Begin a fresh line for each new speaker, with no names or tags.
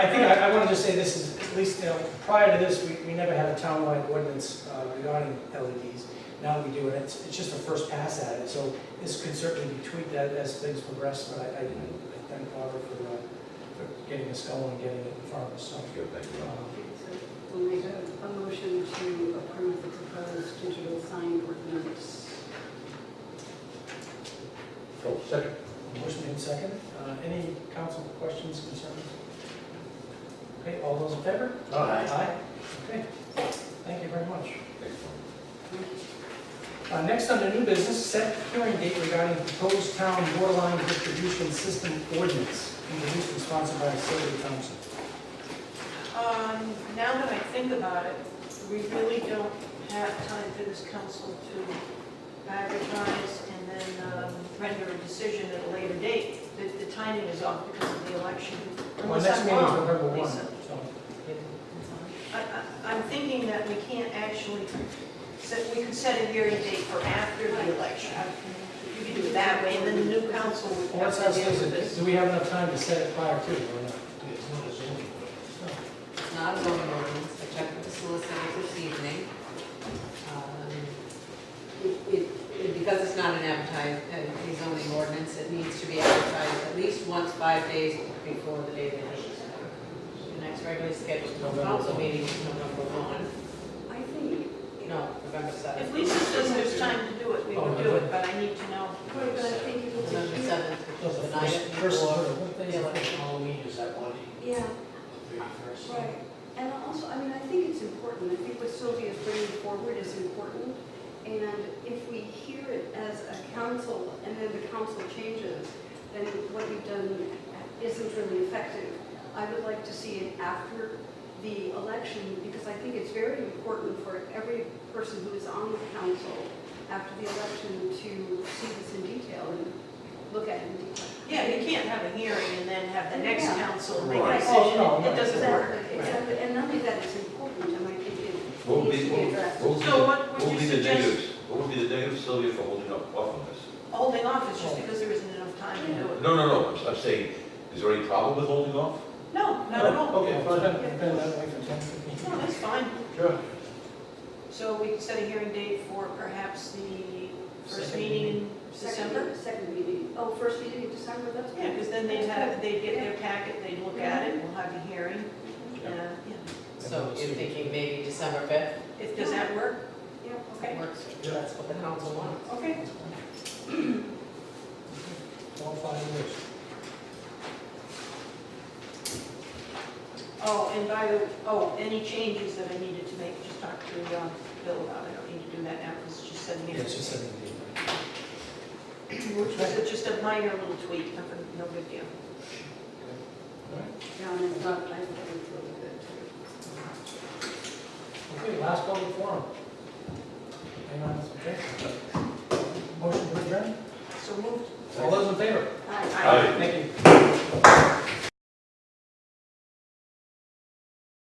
just say this is, at least, you know, prior to this, we, we never had a townwide ordinance uh, regarding LEDs. Now we do, and it's, it's just a first pass at it, so this could certainly be tweaked as, as things progress, but I, I I thank Barbara for, uh, for getting us going and getting it in front of us, so.
Good, thank you.
um,
Okay, so We'll make a, a motion to approve the proposed digital sign ordinance.
Oh, second.
Motion made second. Uh, Any council questions, concerns? Okay, all those in favor? Aye. Okay, thank you very much.
Thanks, Tom.
Uh, Next on the new business, set hearing date regarding proposed town waterline distribution system ordinance, introduced and sponsored by Sylvia Thompson.
Um, now that I think about it, we really don't have time for this council to advertise and then um, render a decision at a later date. The, the timing is off because of the election.
Our
Unless
next
I'm
meeting is
wrong,
November 1,
Lisa.
so.
I, I, I'm thinking that we can't actually, set- we could set a hearing date for after the election. You could do it that way, and then the new council would
Well, let's
have
ask
to deal with
Susan,
this.
do we have enough time to set it prior to, or not?
It's not a zoning ordinance, I checked with the solicitor this evening. Um, it- it- it- Because it's not an advertised, a zoning ordinance, it needs to be advertised at least once five days before the date of issue. The next regularly scheduled council meeting is November one,
I think,
no, November
If
seventh.
Lisa says there's time to do it,
Oh,
we would do it, but I need to know.
but I think it was
November
a,
seventh, which
Well, the
is the night
Oh, first, first,
before
what
the election.
Halloween is that one,
yeah,
the first?
right. And also, I mean, I think it's important, I think what Sylvia is bringing forward is important. And if we hear it as a council and then the council changes, then what we've done isn't really effective. I would like to see it after the election because I think it's very important for every person who is on the council after the election to see this in detail and look at it in detail.
Yeah, you can't have a hearing and then have the next
Yeah.
council make a
Right.
decision.
Oh, no,
It doesn't work.
Exactly, exactly, and not only that, it's important, and I think
What
it
would
needs
be,
to be
what
addressed.
would be,
So
the-
what
what would
would
be
you
the
suggest?
negatives? What would be the negative, Sylvia, for holding up off on this?
Holding off is just because there isn't enough time to do it.
No, no, no, I'm, I'm saying, is there any problem with holding off?
No, not at all.
Okay,
Well,
fine.
it's been- been that way for 10, 15
No, that's fine.
Sure.
So we can set a hearing date for perhaps the first
Second
meeting in
Second-
December?
Second meeting, oh, first meeting in December, that's.
Yeah, because then they'd have, they'd get their packet, they'd look at it, we'll have a hearing.
Yeah.
and, uh, yeah.
So you're thinking maybe December fifth,
If, does that work?
Yeah,
that works, that's what the council wants.
Okay.
all five years.
Oh, and by the, oh, any changes that I needed to make, just talk to um, Bill about it. I don't need to do that now because it's just seven
Yeah,
years.
it's just 17.
Which was just a minor little tweak, nothing, no big deal.
Yeah, and it's not, I think it's really good too.
Okay, last public forum. Hang on, it's okay. Motion to adjourn?
So moved.
All those in favor?
Aye.
Aye.
Thank you.